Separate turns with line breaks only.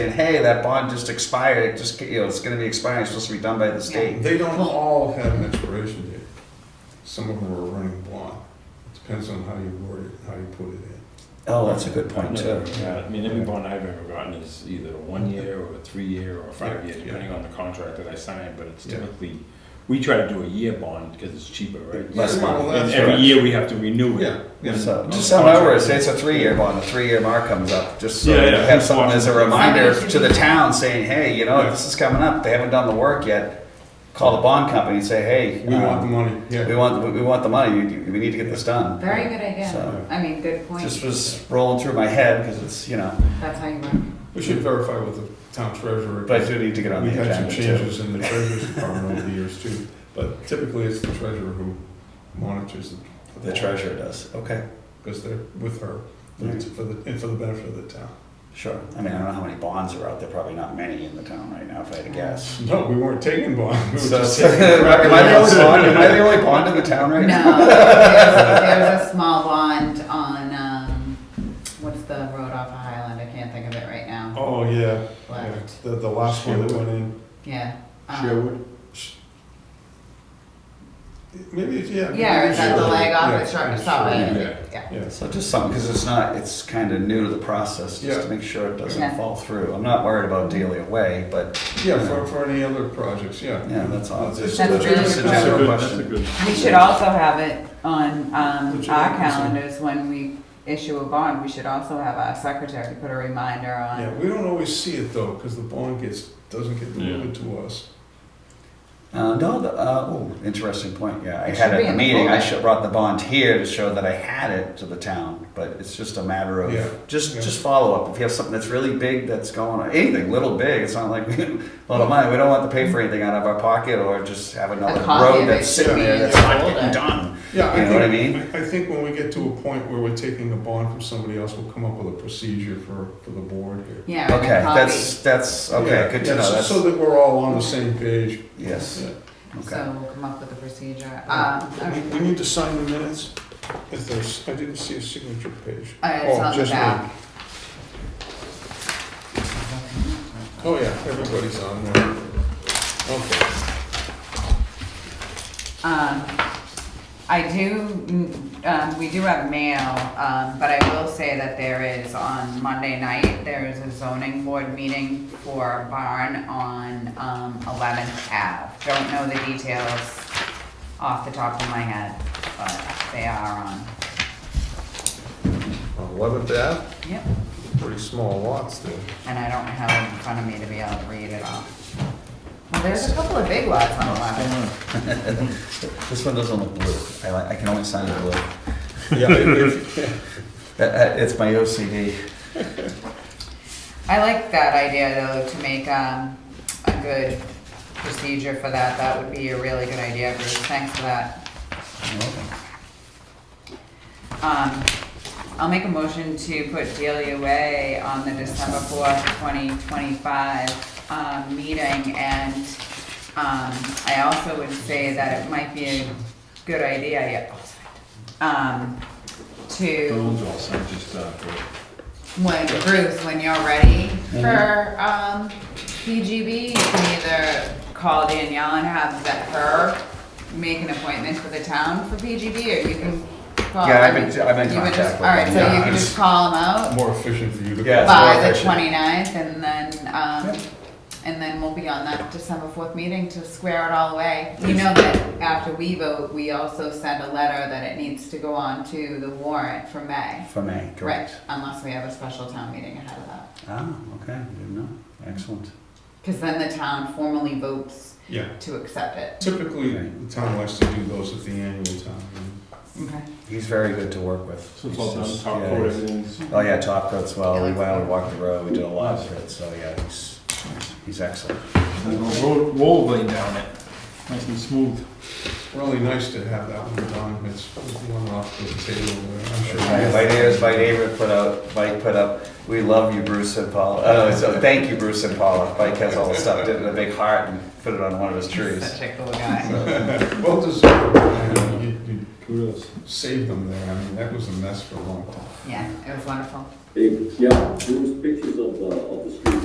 And hey, that bond just expired, it just, you know, it's gonna be expiring, it's supposed to be done by this date.
They don't all have an expiration date. Some of them are running blind. It Depends on how you word it, how you put it in.
Oh, that's a good point too.
Another- yeah, I mean, every bond I've ever gotten is either one year or a three year or a five year,
Yeah.
depending on the contract that I sign, but it's
Yeah.
typically, we try to do a year bond because it's cheaper, right?
Less
Yeah, well,
money.
that's
And every
right.
year we have to renew it.
Yeah, yeah.
So, just so over, it's, it's a three-year bond, the three-year mark comes up, just so
Yeah,
you
yeah.
have someone as a reminder to the town saying, hey, you know,
Yeah.
this is coming up, they haven't done the work yet. Call the bond company and say, hey,
We want the
um,
money,
we
yeah.
want, we- we want the money, we, we need to get this done.
Very good idea.
So-
I mean, good
Just
point.
was rolling through my head, cause it's, you know,
That's how you work.
We should verify with the town treasurer.
but I do need to get on
We
the
had some
agenda too.
changes in the treasurer's department over the years too, but typically it's the treasurer who monitors the.
The treasurer does, okay,
Because they're with her, for the- for the, and for the benefit of the town.
sure. I mean, I don't know how many bonds are out there, probably not many in the town right now, if I had to guess.
No, we weren't taking bonds, we were
So,
just taking.
am I the only bond, am I the only bond in the town right now?
No, there's, there's a small bond on, um, what's the road off of Highland? I can't think of it right now.
Oh, yeah, yeah,
Left.
the, the last one that went in.
Yeah. um,
Maybe, it's- yeah.
Yeah, or is that the
Sure.
leg off
Yeah,
the truck? It's
sure.
not
yeah.
really- yeah.
Yeah.
So just something, because it's not, it's kind of new to the process, just to
Yeah.
make sure it doesn't
Yeah.
fall through. I'm not worried about Dealey Way, but
Yeah, for, for any other projects, yeah.
Yeah, that's all.
It's-
That's
it's
really
just a
good.
general
That's a good-
question.
that's a
We should also have it on, um,
Which
our
is-
calendars when we issue a bond. We should also have our secretary put a reminder
Yeah,
on.
we don't always see it though, because the bond gets, doesn't get delivered to us.
uh, no, the, uh, oh, interesting point. Yeah, I
It
had
should
it at
be
a
in the
meeting. I
folder.
should brought the bond here to show that I had it to the town, but it's just a matter of
Yeah.
just
Yeah.
just follow up. If you have something that's really big that's going on, anything little big, it's not like we, a lot of money. We don't want to pay for anything out of our pocket or just have another
copy of
road
it
that's
should
sitting
be
there
in
that's
the
not
folder.
getting done.
Yeah,
You
I
know what I
think, I I think when we get to a point where we're taking a bond from somebody else, we'll come up with a procedure for, for the board here.
Yeah, we're
Okay,
gonna copy.
that's that's okay.
Yeah,
good
yeah,
to know.
so-
That's,
So that we're all on the same page.
yes.
Yeah.
Okay.
So we'll come up with a procedure. Um,
We- We need to sign the minutes, if there's, I didn't see a signature page.
uh, it's
Oh,
on the
just me.
back.
Oh, yeah, everybody's on there. Okay.
Um, I do, mm, um, we do have mail, um, but I will say that there is on Monday night, there is a zoning board meeting for Barn on, um, Eleventh Ave. Don't know the details off the top of my head, but they are on.
Eleventh Ave,
Yep.
pretty small lots there.
And I don't have it in front of me to be able to read it off. Well, there's a couple of big lots on Eleventh.
This one doesn't look blue. I, like- I can only sign it blue.
Yeah, if-
That- that- it's my OCD.
I like that idea though, to make, um, a good procedure for that, that would be a really good idea, Bruce, thanks for that. Um, I'll make a motion to put Delia Way on the December fourth, twenty twenty-five, um, meeting and, um, I also would say that it might be a good idea, yeah, um, to.
Those all sound just, uh, great.
When, Bruce, when you're ready for,
Mm-hmm.
um, PGB, you can either call Danielle and have that her make an appointment for the town for PGB, or you can call.
Yeah, I've been- I've been in
You would
contact
just-
with
All right, so
them.
you
Yeah,
can
it's-
just call them
yeah,
out
More efficient for you to.
Yeah. it's more
by the
efficient.
29th, and then, um,
Yep.
and then we'll be on that December fourth meeting to square it all away. You know that after we vote, we also send a letter that it needs to go on to the warrant for May.
For me,
Right,
correct.
unless we have a special town meeting ahead of that.
Ah, okay, I didn't know. Excellent.
Because then the town formally votes
Yeah,
to accept it.
typically, the town likes to do those at the annual town. meeting.
Okay.
He's very good to work with.
So it's
He's
all done,
just-
top
yeah,
coat,
he's-
everything's.
Oh, yeah, top coats well. We
Yeah.
went out and walked the road. We did a lot for it, so yeah, he's, he's excellent.
Roll, roll blade down it, nice and smooth.
Really nice to have that one done, it's one off the table there, I'm sure.
My my neighbors, my neighbor put out, Mike put up, we love you, Bruce and Paula. Oh, no, so thank you, Bruce and Paula. Mike has all the stuff, did it in a big heart and put it on one of his trees.
Such a cool guy.
Well deserved, man. you, you
Kudos.
saved them there, I mean, that was a mess for a long time.
Yeah, it was wonderful.
Hey, yeah, there was pictures of the, of the street